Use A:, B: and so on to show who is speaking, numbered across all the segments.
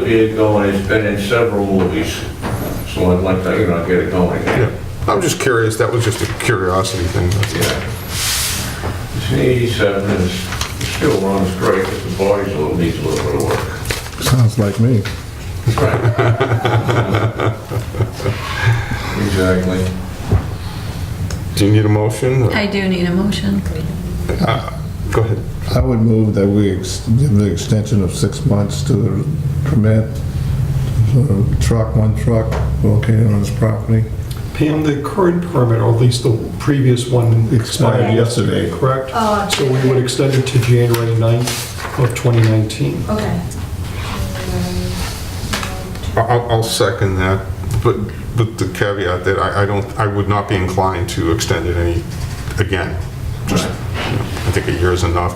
A: get it going, it's been in several movies, so I'd like to, you know, get it going again.
B: I'm just curious, that was just a curiosity thing. that's-
A: Yeah. It's an 87, and it's- it still runs great, but the body's a little, needs a little bit of work.
C: Sounds like me.
A: Right. Exactly.
B: Do you need a motion?
D: I do need a motion.
B: Go ahead.
C: I would move that we ex- give the extension of six months to the permit, uh, truck, one truck located on this property.
E: Pam, the current permit, or at least the previous one expired
C: Expired
E: yesterday,
C: yesterday.
E: correct?
F: Oh,
E: So we would extend it to January 9th of 2019.
F: Okay.
B: I- I'll, I'll second that, but, but the caveat that I, I don't, I would not be inclined to extend it any, again. Just, you know, I think a year is enough.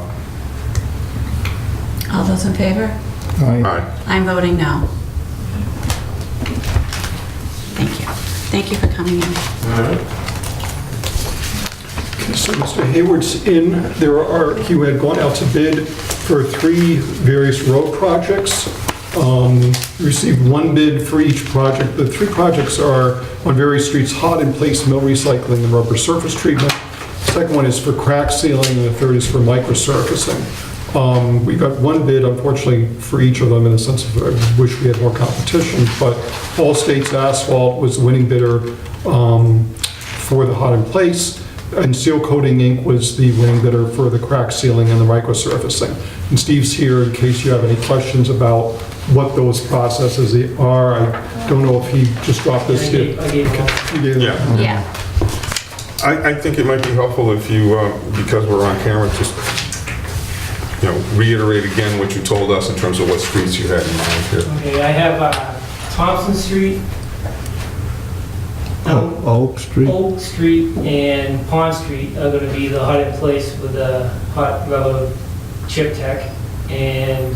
D: All those in favor?
C: Aye.
B: Aye.
D: I'm voting no. Thank you. Thank you for coming in.
A: All right.
E: So Mr. Hayward's in, there are, he had gone out to bid for three various road projects. Um, he Received one bid for each project. The three projects are on various streets, hot in place mill recycling and rubber surface treatment. Second one is for crack sealing, and the third is for microsurfacing. Um, We got one bid, unfortunately, for each of them, in the sense of, I wish we had more competition, but All States Asphalt was the winning bidder um, for the hot in place, and Seal Coating Inc. was the winning bidder for the crack sealing and the microsurfacing. And Steve's here in case you have any questions about what those processes are. I don't know if he just dropped this here.
G: I gave one.
E: You did?
B: Yeah.
D: Yeah.
B: I, I think it might be helpful if you, uh, because we're on camera, just, you know, reiterate again what you told us in terms of what streets you had in mind here.
G: Okay, I have uh, Thompson Street,
C: Oh, Oak Street.
G: Oak Street, and Pond Street are gonna be the hot in place with the hot rubber chip tech. And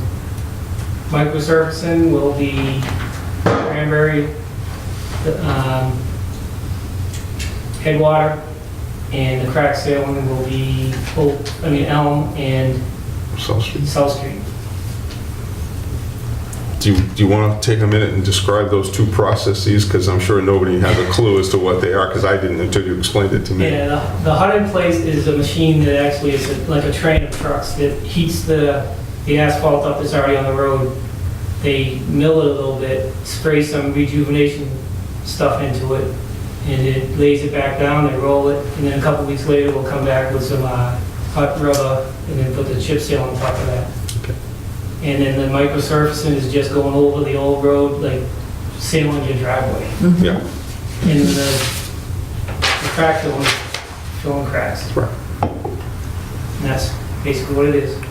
G: microsurfacing will be Cranberry, the, um, Headwater, and the crack sealing will be Oak, I mean Elm and
B: South Street.
G: South Street.
B: Do you, do you want to take a minute and describe those two processes? Because I'm sure nobody has a clue as to what they are, because I didn't until you explained it to me.
G: Yeah, the- the hot in place is a machine that actually is a- like a train of trucks that heats the, the asphalt up that's already on the road. They mill it a little bit, spray some rejuvenation stuff into it, and it lays it back down, they roll it, and then a couple weeks later, we'll come back with some uh, hot rubber, and then put the chip seal on top of that.
B: Okay.
G: And then the microsurfacing is just going over the old road, like sealing your driveway
B: Yeah,
G: in the, the crack filling, filling cracks.
B: Right.
G: And that's basically what it is.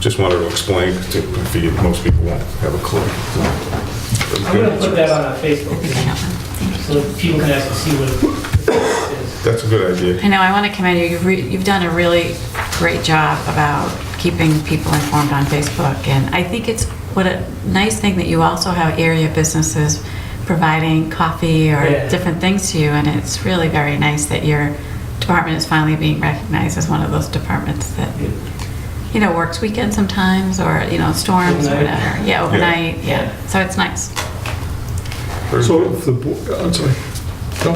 B: just wanted to explain, 'cause it- if you- most people won't have a clue.
G: I'm gonna put that on our Facebook
D: Look at that one.
G: so that people can actually see what it is.
B: That's a good idea.
D: I know, I want to commend you. You've, re- you've done a really great job about keeping people informed on Facebook. And I think it's what a nice thing that you also have area businesses providing coffee or
G: Yeah.
D: different things to you. And it's really very nice that your department is finally being recognized as one of those departments that,
G: Yeah.
D: you know, works weekends sometimes or, you know, storms or
G: Overnight.
D: whatever. Yeah, overnight.
G: Yeah.
D: Yeah. So it's nice.
B: Very
E: So
B: good.
E: if the, bo- oh, I'm sorry,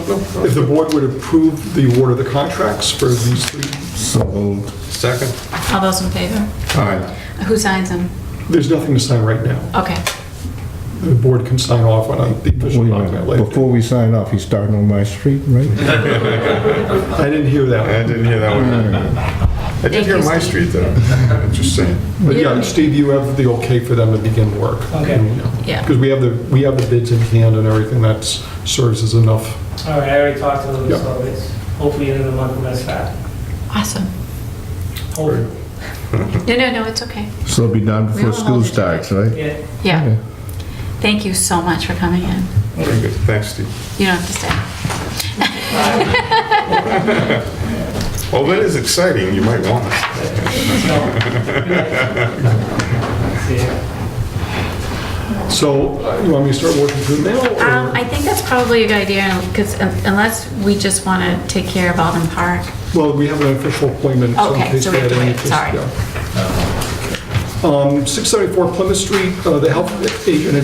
B: No, no,
E: if
B: no.
E: the board would approve the award of the contracts for these three,
C: So moved.
B: Second?
D: All those in favor?
C: Aye.
D: Who signs them?
E: there's nothing to sign right now.
D: Okay.
E: The board can sign off on it, the
C: Wait a
E: official document
C: minute.
E: later.
C: Before we sign off, he's starting on my street, right?
E: I didn't hear that.
B: I didn't hear that one. I did hear my street, though. Just saying.
E: But yeah, Steve, you have the okay for them to begin work.
G: Okay.
D: Yeah.
E: Because we have the, we have the bids in hand and everything, that serves as enough.
G: All right, I already talked to them,
E: Yeah.
G: so it's hopefully end of the month when that's that.
D: Awesome.
G: Hopefully,
D: No, no, no, it's okay.
C: So it'll be done
D: We
C: before
D: don't
C: school
D: hold it to
C: starts, right?
G: yeah.
D: Yeah.
C: Okay.
D: Thank you so much for coming in.
B: Very good. Thanks, Steve.
D: You don't have to stay.
B: Well, that is exciting. You might want it.
G: See ya.
E: So uh, you want me to start working through now? or-
D: Um, I think that's probably a good idea, because unless we just want to take care of Alden Park.
E: Well, we have an official appointment. in
D: Okay,
E: case
D: so we
E: they
D: have
E: had
D: to wait,
E: any interest,
D: sorry.
E: yeah. Um, 674 Plymouth Street, uh, the health agent had